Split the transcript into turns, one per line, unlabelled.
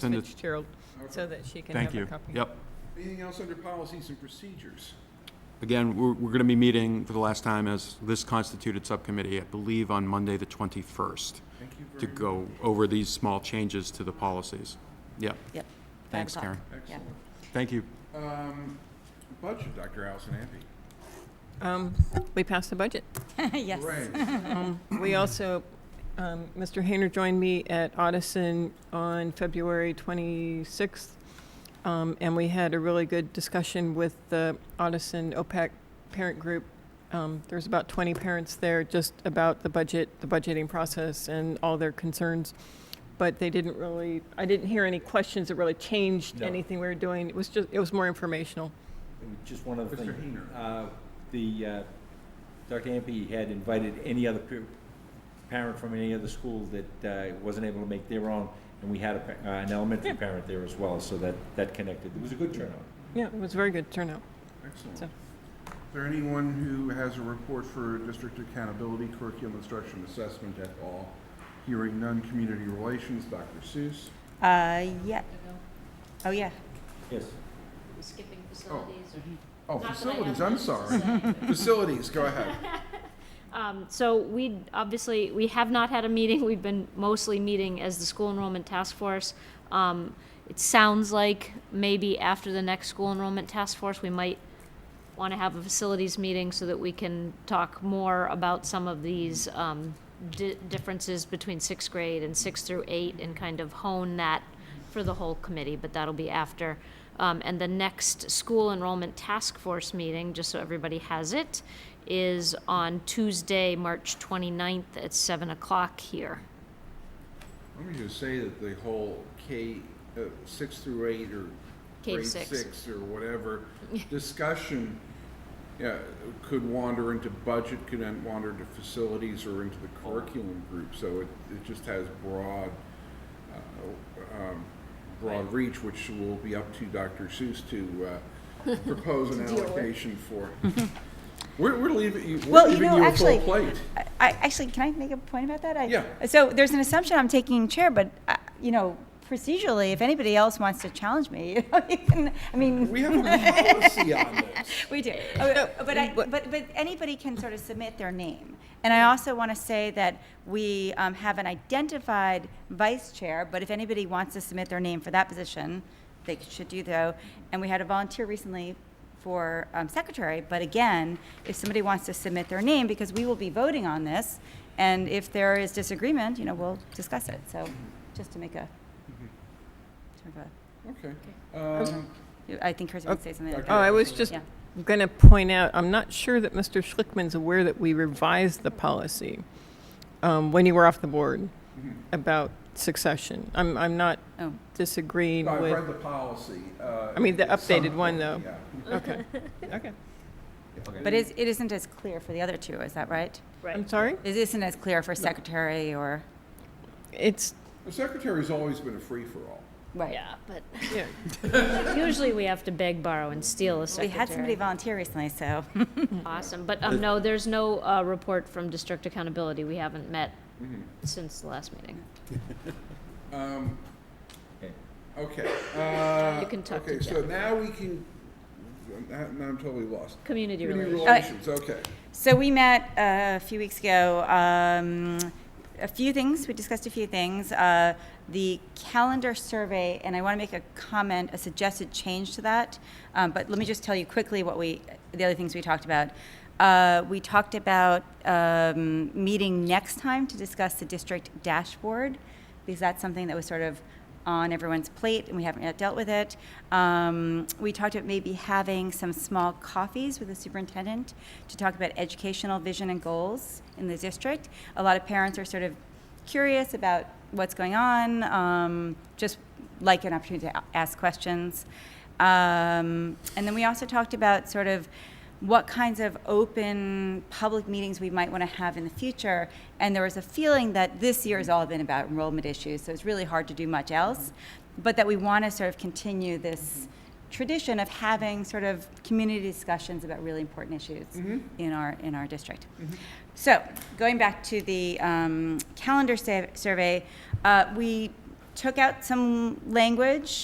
Send it-
Fitzgerald, so that she can
Thank
have a
you.
copy.
Yep.
Anything else under policies and procedures?
Again, we're, we're going to be meeting for the last time as this constituted subcommittee, I believe, on Monday, the 21st,
Thank you
to
very much.
go over these small changes to the policies. Yep.
Yep.
Thanks,
o'clock.
Karen.
Excellent.
Thank you.
Um, Budget, Dr. Allison Ampe.
Um, We passed the budget.
Yes.
Hooray.
We also, um, Mr. Hayner joined me at Audison on February 26th, um, and we had a really good discussion with the Audison OPEC parent group. Um, There's about 20 parents there, just about the budget, the budgeting process, and all their concerns. But they didn't really, I didn't hear any questions that really changed
No.
anything we were doing. It was just, it was more informational.
Just one other thing.
Mr. Hayner.
Uh, The, uh, Dr. Ampe had invited any other pa- parent from any other school that uh, wasn't able to make their own, and we had a pa- uh, an elementary parent there as well, so that, that connected. It was a good turnout.
Yeah, it was a very good turnout.
Excellent.
So-
Is there anyone who has a report for district accountability, curriculum instruction assessment at all? Hearing none, community relations, Dr. Seuss.
Uh, yeah. Oh, yeah.
Yes.
We're skipping facilities or?
Oh,
Not that I
facilities,
have
I'm
much to
sorry.
say.
Facilities, go ahead.
Um, so we, obviously, we have not had a meeting, we've been mostly meeting as the school enrollment task force. Um, it sounds like maybe after the next school enrollment task force, we might want to have a facilities meeting so that we can talk more about some of these, um, di- differences between sixth grade and six through eight and kind of hone that for the whole committee, but that'll be after. Um, and the next school enrollment task force meeting, just so everybody has it, is on Tuesday, March 29th at 7 o'clock here.
Let me just say that the whole K, uh, six through eight or
K to
grade
six.
six or whatever discussion, yeah, could wander into budget, could then wander into facilities or into the curriculum group. So it, it just has broad, uh, um, broad reach, which will be up to Dr. Seuss to, uh, propose an allocation for. We're, we're leaving, you- we're
Well, you
leaving
know,
you a full
actually-
plate.
I, I- actually, can I make a point about that? I-
Yeah.
So there's an assumption I'm taking chair, but, uh, you know, procedurally, if anybody else wants to challenge me, you know, you can, I mean,
We have a policy on this.
we do. Oh, But I, but, but anybody can sort of submit their name. And I also want to say that we um, have an identified vice chair, but if anybody wants to submit their name for that position, they should do so. And we had a volunteer recently for um, secretary, but again, if somebody wants to submit their name, because we will be voting on this, and if there is disagreement, you know, we'll discuss it. So just to make a, sort of
Okay. Um,
a, I think Chris would say something. like
Oh,
that.
I was just
Yeah.
going to point out, I'm not sure that Mr. Schlickman's aware that we revised the policy um, when you were off the board
Mm-hmm.
about succession. I'm, I'm not
Oh.
disagreeing
I've read
with,
the policy. uh,
I mean, the
it's some-
updated one, though.
yeah.
okay, okay.
But is, it isn't as clear for the other two, is that right?
I'm sorry?
It isn't as clear for secretary or?
It's,
The secretary's always been a free-for-all.
Right.
Yeah, but
yeah,
usually we have to beg, borrow, and steal a
We had somebody
secretary.
volunteer recently, so.
Awesome, but, um, no, there's no, uh, report from district accountability, we haven't met
Mm-hmm.
since the last meeting.
Um,
Okay.
Okay. uh,
You can talk to
Okay, so
Jennifer.
now we can, now now I'm totally lost.
Community
Community
relations.
relations, okay.
So we met uh, a few weeks ago. Um, a few things, we discussed a few things. Uh, the calendar survey, and I want to make a comment, a suggested change to that. Um, but let me just tell you quickly what we, the other things we talked about. Uh, we talked about um, meeting next time to discuss the district dashboard, because that's something that was sort of on everyone's plate, and we haven't yet dealt with it. Um, we talked about maybe having some small coffees with the superintendent to talk about educational vision and goals in the district. A lot of parents are sort of curious about what's going on, um, just like an opportunity to a- ask questions. Um, and then we also talked about sort of what kinds of open public meetings we might want to have in the future. And there was a feeling that this year has all been about enrollment issues, so it's really hard to do much else, but that we want to sort of continue this tradition of having sort of community discussions about really important issues in our in our district. So going back to the um, calendar sa- survey, uh, we took out some language